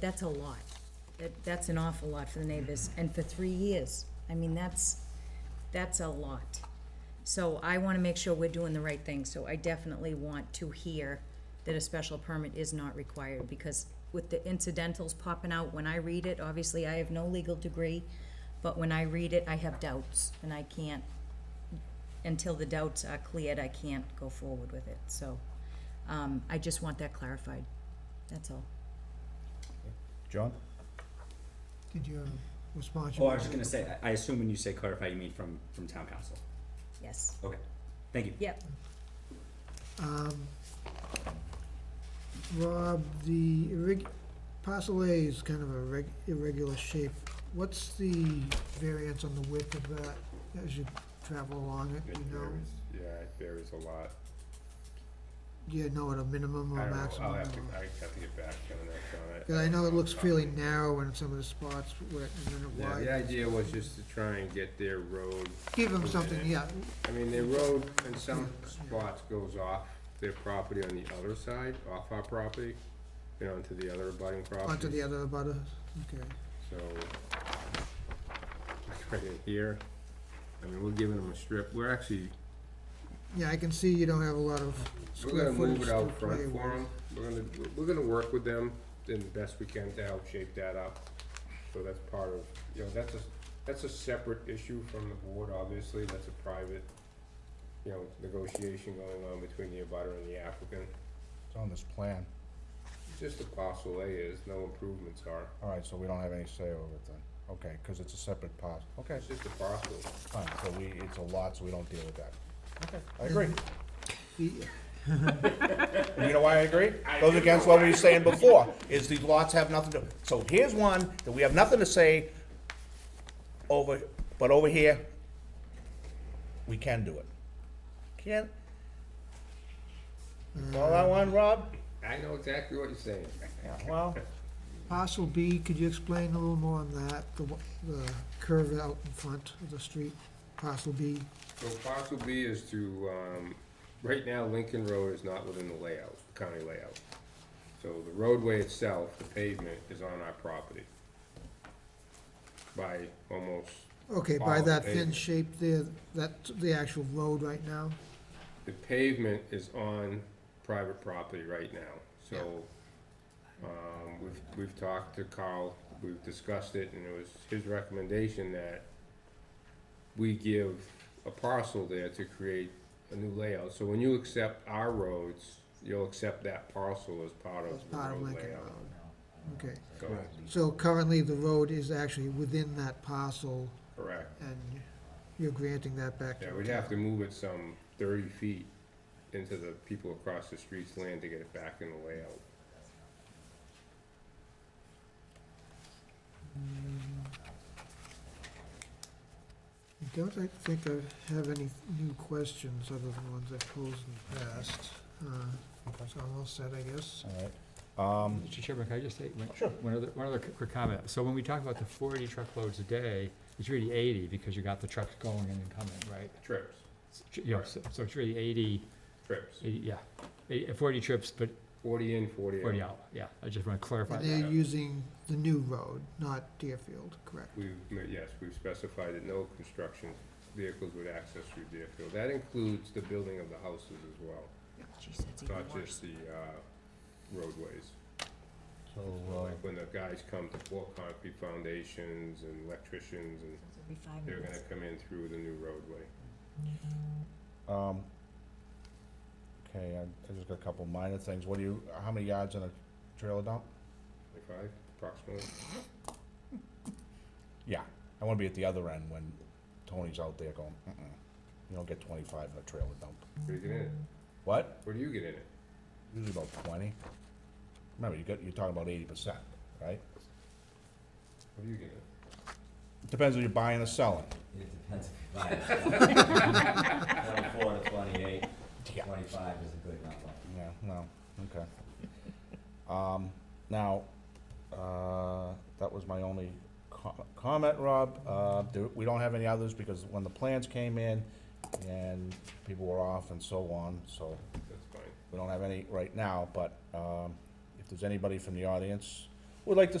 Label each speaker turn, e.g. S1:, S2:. S1: that's a lot. That, that's an awful lot for the neighbors, and for three years. I mean, that's, that's a lot. So I wanna make sure we're doing the right thing, so I definitely want to hear that a special permit is not required, because with the incidentals popping out, when I read it, obviously I have no legal degree, but when I read it, I have doubts, and I can't, until the doubts are cleared, I can't go forward with it, so, um, I just want that clarified, that's all.
S2: John?
S3: Did you respond?
S4: Oh, I was just gonna say, I I assume when you say clarify, you mean from, from town council.
S1: Yes,
S4: Okay, thank you.
S1: yep,
S3: Um, Rob, the irreg, parcel A is kind of a reg, irregular shape. What's the variance on the width of that as you travel along it,
S5: It
S3: you know?
S5: varies, yeah, it varies a lot.
S3: Do you know at a minimum
S5: I
S3: or
S5: don't know,
S3: maximum?
S5: I'll have to,
S3: or-
S5: I have to get back to that on it.
S3: Cause I know it looks fairly
S5: Um,
S3: narrow in some of the spots where, and then it
S5: Yeah,
S3: widens.
S5: the idea was just to try and get their road,
S3: Give them something, yeah,
S5: I mean, their road in some spots goes off their property on the other side, off our property, you know, onto the other abutting property.
S3: onto the other abutters, okay.
S5: So, like right in here, I mean, we're giving them a strip, we're actually,
S3: Yeah, I can see you don't have a lot of
S5: we're
S3: square
S5: gonna
S3: footage to
S5: move it
S3: play
S5: out
S3: with.
S5: front for them, we're gonna, we're gonna work with them in the best we can to help shape that up. So that's part of, you know, that's a, that's a separate issue from the board, obviously, that's a private, you know, negotiation going on between the abutter and the applicant.
S2: It's on this plan.
S5: Just a parcel A is, no improvements are,
S2: All right, so we don't have any say over it then. Okay, because it's a separate part. Okay,
S5: it's just a parcel.
S2: fine, so we, it's a lot, so we don't deal with that. Okay, I agree.
S3: The-
S2: You know why I agree? Goes against what we were saying before, is these lots have nothing to, so here's one that we have nothing to say over, but over here, we can do it. Can? You Follow that one, Rob?
S5: I know exactly what you're saying.
S2: Yeah, well,
S3: Parcel B, could you explain a little more on that, the, wa- the curve out in front of the street, parcel B?
S5: So parcel B is to, um, right now Lincoln Road is not within the layout, the county layout. So the roadway itself, the pavement, is on our property. By almost,
S3: Okay, by
S5: Follow the
S3: that thin
S5: pavement.
S3: shape there, that's the actual road right now?
S5: the pavement is on private property right now, so. Um, we've, we've talked to Carl, we've discussed it, and it was his recommendation that we give a parcel there to create a new layout. So when you accept our roads, you'll accept that parcel as part
S3: That's
S5: of the
S3: part of
S5: road
S3: Lincoln
S5: layout.
S3: Road. Okay,
S5: So,
S3: so currently the road is actually within that parcel
S5: correct.
S3: and you're granting that back to
S5: Yeah,
S3: the
S5: we'd have to move it some thirty feet into the people across the street's land to get it back in the layout.
S3: I Don't I think I have any new questions other than ones I've posed in the past. Uh, so I'm all set, I guess.
S2: all right. Um,
S6: Mr. Chairman, can I just say one-
S2: Sure.
S6: one other, one other quick comment? So when we talk about the forty truckloads a day, it's really eighty because you got the trucks going in and coming, right?
S5: Trips,
S6: It's tr- You know, so so it's really 80
S5: trips,
S6: 80 yeah, 80 forty trips, but
S5: forty in, forty out.
S6: forty out, yeah. I just wanna clarify
S3: And
S6: that.
S3: they're using the new road, not Deerfield, correct?
S5: We've, ma- yes, we've specified that no construction vehicles would access through Deerfield. That includes the building of the houses as well,
S1: geez, that's even
S5: not
S1: worse.
S5: just the uh, roadways.
S2: So, uh,
S5: Like when the guys come to pour concrete foundations and electricians, and
S1: Every five
S5: they're
S1: minutes.
S5: gonna come in through the new roadway.
S2: Um, okay, I, I just got a couple minor things. What do you, how many yards in a trailer dump?
S5: Twenty-five, approximately.
S2: Yeah, I wanna be at the other end when Tony's out there going, mm-mm, you don't get twenty-five in a trailer dump.
S5: What do you get in it?
S2: What?
S5: What do you get in it?
S2: Usually about twenty. Remember, you got, you're talking about eighty percent, right?
S5: What do you get in it?
S2: Depends if you're buying or selling.
S7: It depends if you buy. Twenty-four to twenty-eight, twenty-five is a good number.
S2: Yeah, no, okay. Um, now, uh, that was my only com- comment, Rob. Uh, there, we don't have any others because when the plans came in and people were off and so on, so
S5: That's fine.
S2: we don't have any right now, but, um, if there's anybody from the audience would like to